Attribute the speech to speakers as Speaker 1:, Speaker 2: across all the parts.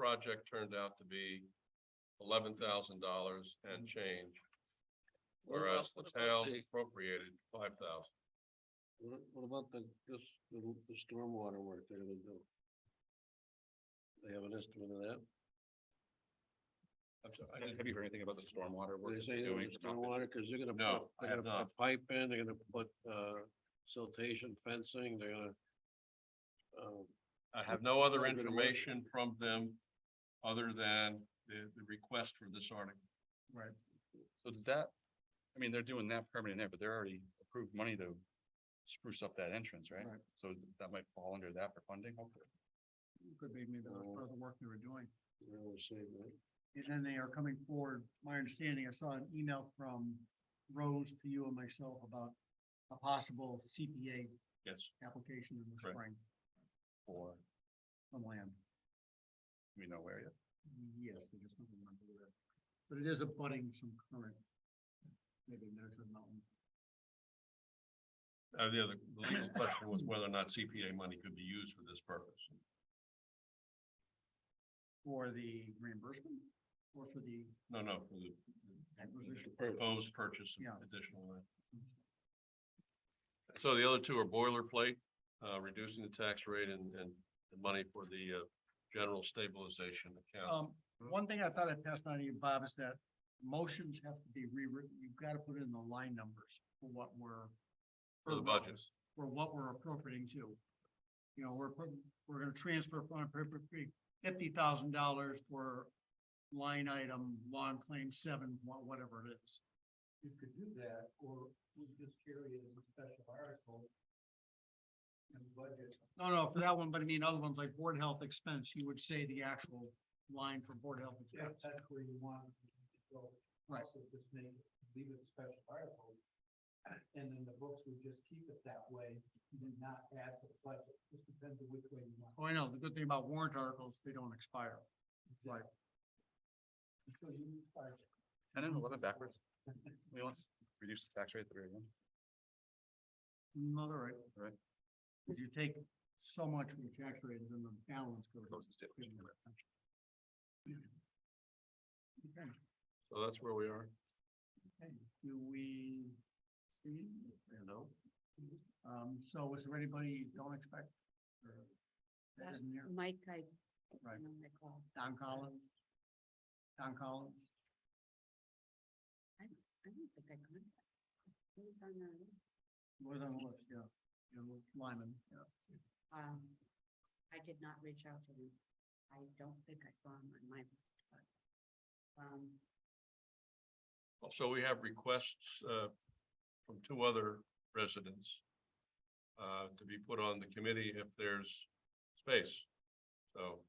Speaker 1: project turned out to be eleven thousand dollars and change,
Speaker 2: Mm. What
Speaker 1: whereas the
Speaker 2: about- what about
Speaker 1: town
Speaker 2: the-
Speaker 1: appropriated five thousand.
Speaker 2: What what about the, this, the the stormwater work they're gonna do? They have an estimate of that?
Speaker 3: I'm sorry, I didn't- Have you heard anything about the stormwater work?
Speaker 2: They
Speaker 3: that
Speaker 2: say
Speaker 3: they're
Speaker 2: they're
Speaker 3: doing
Speaker 2: gonna
Speaker 3: for Mountain View?
Speaker 2: stormwater, cause they're gonna put,
Speaker 1: No, I
Speaker 2: they're
Speaker 1: have
Speaker 2: gonna put pipe in, they're gonna put, uh, siltation fencing, they're gonna. Um,
Speaker 1: I have no other
Speaker 2: That's a good word.
Speaker 1: information from them other than the, the request for this article.
Speaker 3: So does that, I mean, they're doing that permanent there, but they're already approved money to spruce up that entrance, right?
Speaker 4: Right.
Speaker 3: So that might fall under that for funding, hopefully.
Speaker 4: Could be maybe that's
Speaker 2: Oh.
Speaker 4: part of the work they were doing.
Speaker 2: they're gonna say that.
Speaker 4: And then they are coming forward, my understanding, I saw an email from Rose to you and myself about a possible CPA
Speaker 1: Yes.
Speaker 4: application in the
Speaker 1: Right.
Speaker 4: spring
Speaker 3: Or
Speaker 4: on land.
Speaker 3: we know where yet.
Speaker 4: Yes, I just don't remember where. But it is abutting some current. Maybe there's a mountain.
Speaker 1: Uh, the other, the legal question was whether or not CPA money could be used for this purpose.
Speaker 4: For the reimbursement or for the
Speaker 1: No, no, for the- the
Speaker 4: acquisition?
Speaker 1: proposed purchase
Speaker 4: Yeah.
Speaker 1: of additional land. So the other two are boilerplate, uh, reducing the tax rate and, and the money for the, uh, general stabilization account.
Speaker 4: Um, one thing I thought I'd pass on to you, Bob, is that motions have to be rewritten. You've got to put in the line numbers for what we're.
Speaker 1: For the budget.
Speaker 4: budgets, For what we're appropriating to. You know, we're putting, we're gonna transfer from appropriate fifty thousand dollars for line item, law and claim seven, wha- whatever it is. You could do that, or we just carry it as a special article. And budget. No, no, for that one, but I mean, other ones like board health expense, you would say the actual line for board health. Yeah, that's where you want to go. Right. Just make, leave it special article. And then the books would just keep it that way, and then not add to the budget, just depends on which way you want. Oh, I know, the good thing about warrant articles, they don't expire. Right. Until you expire.
Speaker 3: Ten and eleven backwards. We want to reduce the tax rate at the very end.
Speaker 4: No, they're right.
Speaker 3: Right.
Speaker 4: If you take so much from the tax rate, then the balance goes.
Speaker 3: Goes to state.
Speaker 4: Okay.
Speaker 1: So that's where we are.
Speaker 4: Okay, do we? see? No. Um, so is there anybody you don't expect? or That
Speaker 5: That's
Speaker 4: isn't here,
Speaker 5: Mike, I,
Speaker 4: right,
Speaker 5: don't recall.
Speaker 4: Don Collins? Don Collins,
Speaker 5: I don't think I contacted. Who was on that? list?
Speaker 4: He was on the list, yeah, you know, Lyman, yeah.
Speaker 5: Um, I did not reach out to him. I don't think I saw him on my list, but. Um,
Speaker 1: Also, we have requests, uh, from two other residents, uh, to be put on the committee if there's space. So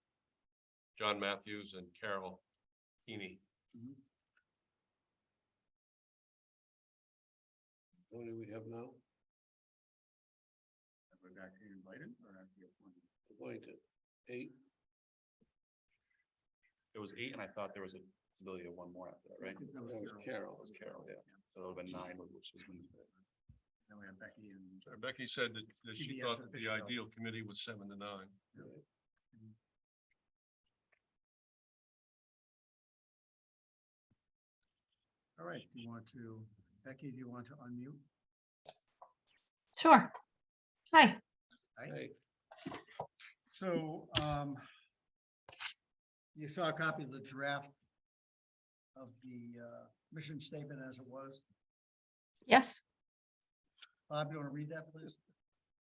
Speaker 1: John Matthews and Carol Heaney.
Speaker 2: How many we have now?
Speaker 4: Have we got you invited or have you appointed?
Speaker 2: Appointed, eight,
Speaker 3: It was eight and I thought there was a possibility of one more after that, right?
Speaker 4: That was
Speaker 2: that was
Speaker 4: Carol.
Speaker 2: Carol.
Speaker 3: That was Carol, yeah. So it would have been nine, which is when.
Speaker 4: Then we have Becky and.
Speaker 1: Uh, Becky said that, that she
Speaker 4: CBS
Speaker 1: thought that the
Speaker 4: official.
Speaker 1: ideal committee was seven to nine.
Speaker 4: All right, do you want to, Becky, do you want to unmute?
Speaker 6: Sure. Hi,
Speaker 2: Hey,
Speaker 4: So, um, you saw a copy of the draft of the, uh, mission statement as it was.
Speaker 6: yes,
Speaker 4: Bob, you want to read that, please?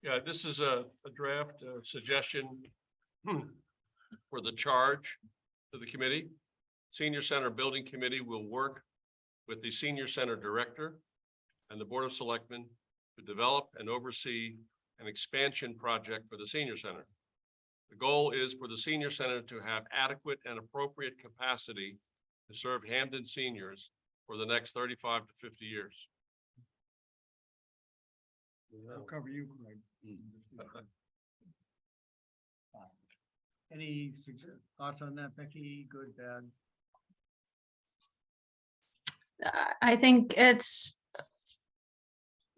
Speaker 1: Yeah, this is a, a draft uh, suggestion for the charge to the committee. Senior Center Building Committee will work with the Senior Center Director and the Board of Selectmen to develop and oversee an expansion project for the senior center. The goal is for the senior center to have adequate and appropriate capacity to serve Hamden seniors for the next thirty-five to fifty years.
Speaker 4: I'll cover you, Greg. Any sugge- thoughts on that, Becky? Good, bad?
Speaker 6: I- I think it's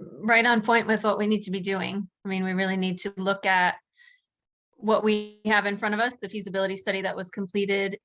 Speaker 6: right on point with what we need to be doing. I mean, we really need to look at what we have in front of us, the feasibility study that was completed